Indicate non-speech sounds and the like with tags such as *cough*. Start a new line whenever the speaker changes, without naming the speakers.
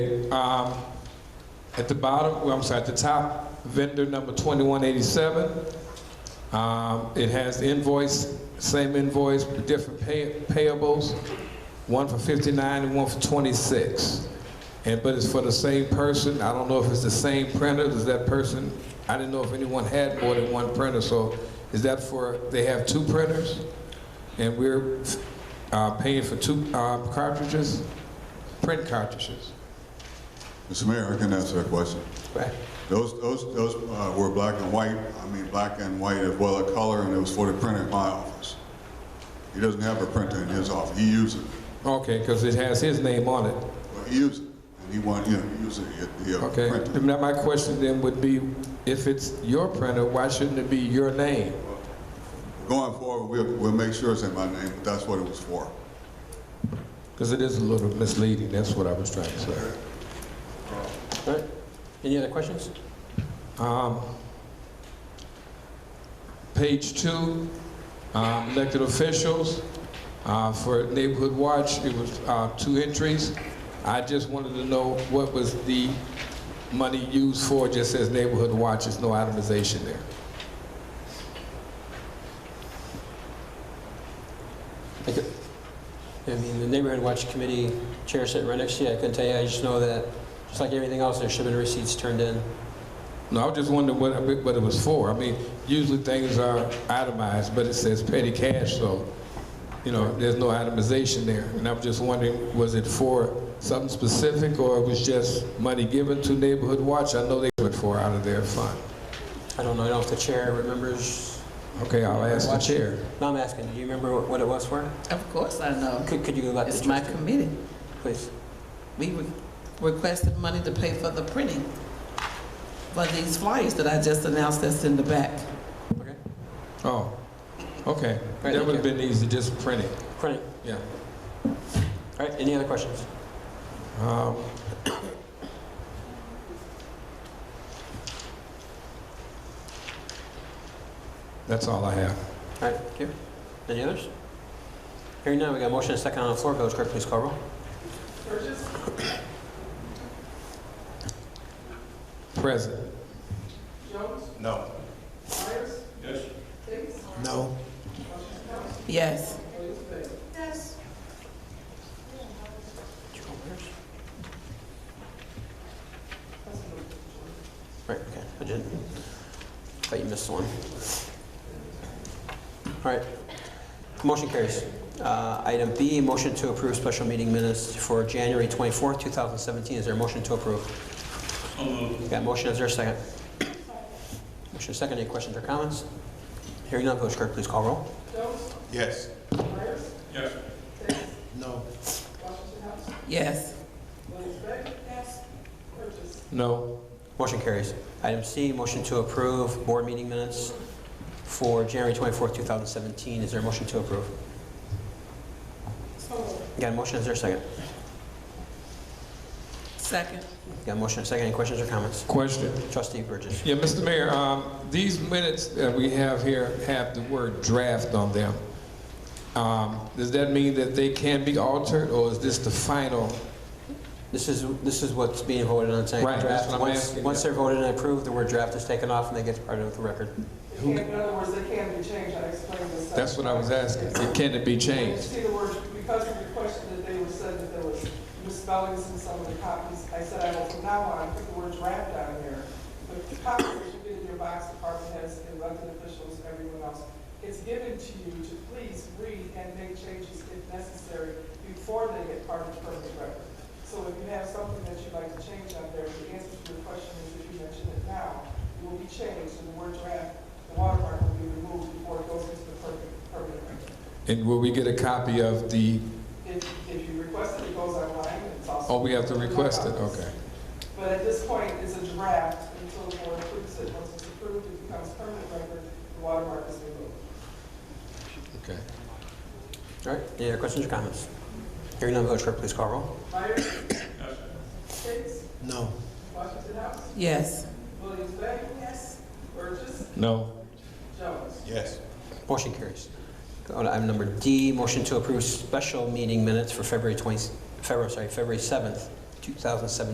Um, At the bottom, well, I'm sorry, at the top, vendor number 2187. Um, It has the invoice, same invoice, but different pay- payables, one for 59 and one for 26. And, but it's for the same person. I don't know if it's the same printer, does that person, I didn't know if anyone had more than one printer, so is that for, they have two printers? And we're uh, paying for two uh, cartridges, print cartridges?
Mr. Mayor, I can answer that question.
Right.
Those, those, those uh, were black and white, I mean, black and white as well as color, and it was for the printer in my office. He doesn't have a printer in his office, he uses it,
Okay, because it has his name on it.
Well, he uses it, and he want, you know, he uses it, he have a
Okay.
printer.
Now, my question then would be, if it's your printer, why shouldn't it be your name?
Going forward, we'll, we'll make sure it's in my name, but that's what it was for.
Because it is a little misleading, that's what I was trying to say.
All right. Any other questions?
Um, Page two, um, elected officials, uh, for Neighborhood Watch, it was uh, two entries. I just wanted to know what was the money used for, It just says Neighborhood Watch, there's no itemization there.
I could- I mean, the Neighborhood Watch Committee chair sitting right next to you, I couldn't tell you, I just know that, just like everything else, there should have been receipts turned in.
No, I was just wondering what, what it was for. I mean, usually things are itemized, but it says petty cash, so, you know, there's no itemization there. And I'm just wondering, was it for something specific, or it was just money given to Neighborhood Watch? I know they put for out of their fund.
I don't know, I don't know if the chair remembers,
Okay, I'll ask the
Watch.
chair.
no, I'm asking, do you remember what- what it was for?
Of course I know.
Could, could you let the
It's my
trustee,
committee.
please?
We re- requested money to pay for the printing for these flyers that I just announced that's in the back.
Okay.
Oh, okay.
Right,
That
thank
would have been easy, just print it,
Crennick,
yeah.
all right, any other questions?
Um, *coughs* That's all I have.
All right, thank you. Any others? Hearing none, we got a motion and a second on the floor, Village Clerk, please call roll.
Present.
No.
Yes.
Right, okay, I did. Thought you missed one. All right, motion carries. Uh, Item B, motion to approve special meeting minutes for January 24th, 2017. Is there a motion to approve? Got a motion, is there a second? Motion second, any questions or comments? Hearing none, Village Clerk, please call roll.
Yes.
Yes.
No.
Motion carries. Item C, motion to approve board meeting minutes for January 24th, 2017. Is there a motion to approve? Got a motion, is there a second?
Second.
Got a motion and a second. Any questions or comments?
Question.
Trustee Burgess.
Yeah, Mr. Mayor, um, these minutes that we have here have the word draft on them. Um, Does that mean that they can be altered, or is this the final?
This is, this is what's being voted on tonight.
Right, that's
Draft.
what I'm
Once-
asking,
Once
yeah.
they're voted and approved, the word draft is taken off and that gets part of the record.
In other words, they can be changed, I explained this.
That's what I was asking. Can it be
When you
changed?
see the word, because of the question that they were said that there was misspellings in some of the copies, I said, I will from now on put the word draft down here. But the copies that you get in your box, department heads, elected officials, everyone else, it's given to you to please read and make changes if necessary before they get part of the permanent record. So if you have something that you'd like to change out there, the answer to your question is if you mention it now, it will be changed and the word draft, the watermark will be removed before it goes into the permanent, permanent record.
And will we get a copy of the,
If, if you request it, it goes online, it's also.
oh, we have to request it? Okay.
But at this point, it's a draft until the board approves it. Once it's approved, it becomes permanent record, the watermark is removed.
Okay.
All right, any other questions or comments? Hearing none, Village Clerk, please call roll.
Myers? Hicks?
No.
Washington House?
Yes.
Williams Bay? Yes. Burgess?
No.
Jones?
Yes.
Motion carries. Go to item number D, motion to approve special meeting minutes for February 20, February, sorry, February 7th, 2017.